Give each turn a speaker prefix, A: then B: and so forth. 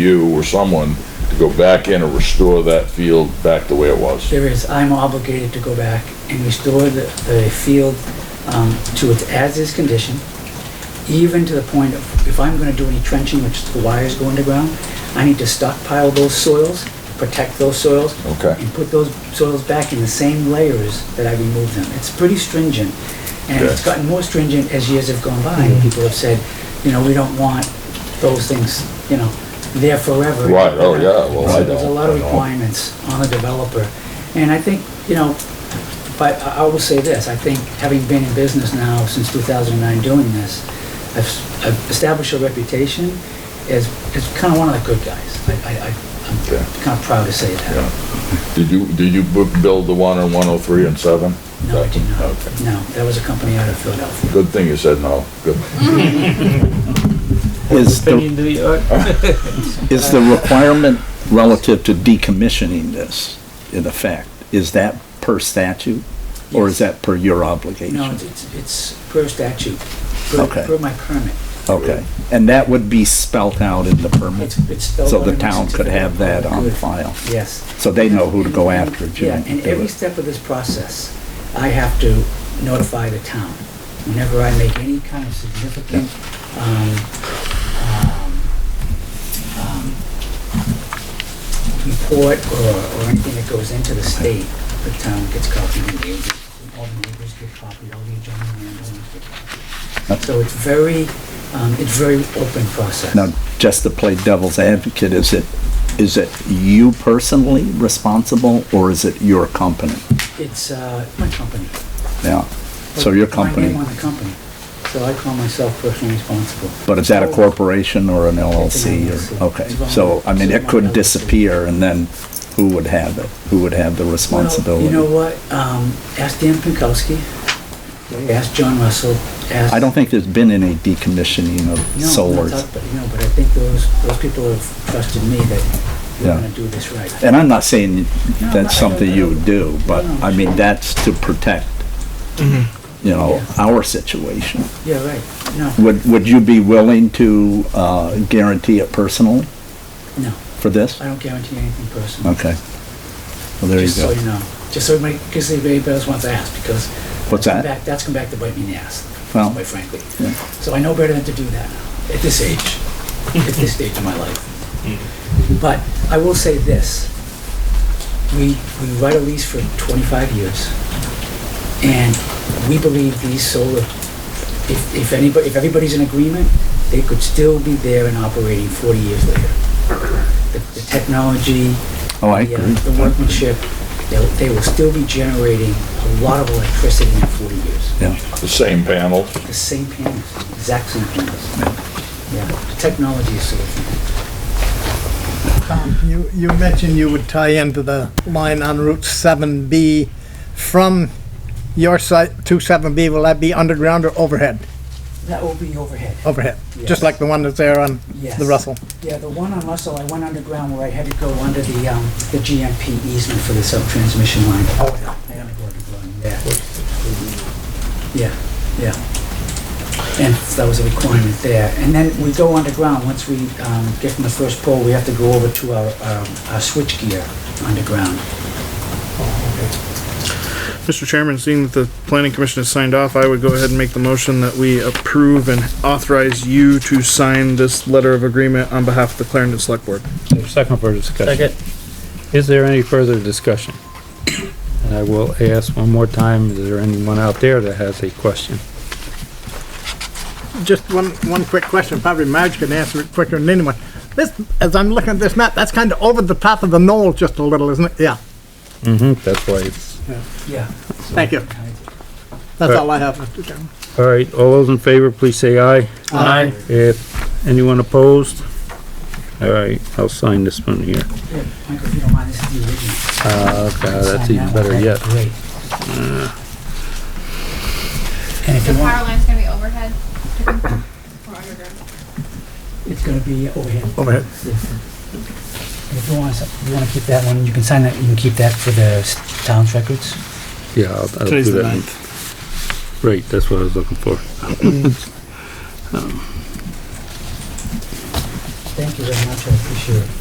A: you or someone to go back in and restore that field back the way it was.
B: There is, I'm obligated to go back and restore the, the field um, to its as-is condition, even to the point of, if I'm gonna do any trenching, which the wires go underground, I need to stockpile those soils, protect those soils.
A: Okay.
B: And put those soils back in the same layers that I removed them. It's pretty stringent. And it's
A: Okay.
B: gotten more stringent as years have gone by, and people have said, you know, we don't want those things, you know, there forever.
A: Right, oh, yeah, well, I
B: So There's a
A: don't-
B: lot of
A: I don't.
B: requirements on the developer, and I think, you know, but I I will say this, I think, having been in business now since 2009 doing this, I've s- I've established a reputation as, as kind of one of the good guys. I- I, I-
A: Okay.
B: I'm kind of proud to say that.
A: Did you, did you bu- build the one on 103 and 7?
B: No, I did not.
A: Okay.
B: No, that was a company out of Philadelphia.
A: Good thing you said no. Good.
C: Is the,
D: opinion to the
C: Uh,
D: art.
C: is the requirement relative to decommissioning this, in effect, is that per statute? Or is that per your obligation?
B: No, it's- it's, it's per statute, per
C: Okay.
B: per my permit.
C: Okay, and that would be spelt out in the permit,
B: It's it's spelled
C: so
B: out
C: the
B: in
C: town could
B: certificate.
C: have that on
B: Good.
C: file,
B: Yes.
C: so they know who to go after if you
B: Yeah,
C: don't
B: and
C: do
B: every
C: it.
B: step of this process, I have to notify the town. Whenever I make any kind of significant, um, um, um, report or, or anything that goes into the state, the town gets copied and neighbors, all the neighbors get copied, all the adjoining landowners get copied.
C: Okay.
B: So it's very, um, it's very open process.
C: Now, just to play devil's advocate, is it, is it you personally responsible, or is it your company?
B: It's, uh, my company.
C: Yeah, so your
B: My
C: company,
B: name on the company, so I call myself personally responsible.
C: but is that a corporation or an LLC?
B: It's an
C: or-
B: LLC.
C: Okay,
B: It's
C: so, I mean,
B: a
C: it could
B: LLC.
C: disappear, and then who would have it? Who would have the
B: Well,
C: responsibility?
B: You know what, um, ask Dan Pinkowski, ask John Russell, ask.
C: I don't think there's been any decommissioning
B: No,
C: of
B: not
C: solars.
B: that, But, you know, but I think those, those people have trusted me that we're
C: Yeah.
B: gonna do this right.
C: And I'm not
B: No,
C: saying
B: I- I
C: that's something you would do, but,
B: No, no,
C: I mean,
B: sure.
C: that's to protect, you know,
B: Yeah.
C: our situation.
B: Yeah, right, no,
C: Would, would you be willing to uh, guarantee it personally
B: no,
C: for this?
B: I don't guarantee anything personally.
C: Okay. Well, there you
B: Just so
C: go.
B: you know, just so everybody, because everybody else wants to ask, because.
C: What's
B: that's come
C: that?
B: back- That's come back to bite me in the ass,
C: Well,
B: quite frankly.
C: yeah.
B: So I know better than to do that now, at this age, at this stage of my life. But I will say this, we, we write a lease for 25 years, and we believe these solar, if, if anybody, if everybody's in agreement, they could still be there and operating 40 years later. The the technology,
C: Oh, I
B: the, uh,
C: agree.
B: The workmanship, they'll- they will still be generating a lot of electricity in 40 years.
C: Yeah,
A: The same panel.
B: The same panels, exact same panels. Yeah, the technology is solution.
E: Tom, Um, you, you mentioned you would tie into the line on Route 7B from your site to 7B. Will that be underground or overhead?
B: That will be overhead.
E: Overhead,
B: Yes.
E: just like the one that's there on
B: Yes.
E: the Russell.
B: Yeah, the one on Russell, I went underground where I had to go under the, um, the GMP easement for the sub-transmission line. Oh, yeah. I had to go underground, yeah. Yeah, yeah. And that was a requirement there. And then we go underground, once we, um, get from the first pole, we have to go over to our, um, our switchgear underground.
D: Mr. Chairman, seeing that the planning commission has signed off, I would go ahead and make the motion that we approve and authorize you to sign this letter of agreement on behalf of the Clarendon Select Board.
F: Second for discussion. Is there any further discussion? And I will ask one more time, is there anyone out there that has a question?
E: Just one, one quick question, probably Marge can answer it quicker than anyone. This, as I'm looking at this map, that's kind of over the top of the knoll just a little, isn't it? Yeah,
F: Mm-hmm, that's why it's,
B: Yeah.
E: thank you. That's
F: Uh,
E: all I have, Mr. Chairman.
F: all right, all those in favor, please say aye. Aye. If anyone opposed? All right, I'll sign this one here.
B: Yeah, Michael, if you don't mind, this is the original.
F: Uh, okay, that's
B: Sign
F: even
B: that
F: better
B: one,
F: yet.
B: that'd be Great. And if
G: The
B: you
G: power
B: want,
G: line's gonna be overhead, I think, or underground.
B: it's gonna be overhead.
E: Overhead.
B: Yeah. And if you want, you wanna keep that one, you can sign that, you can keep that for the s- town's records.
F: Yeah, I'll, I'll do that.
D: Today's the
F: one.
D: ninth.
F: Right, that's what I was looking for.
B: Then Thank you very much, I appreciate it.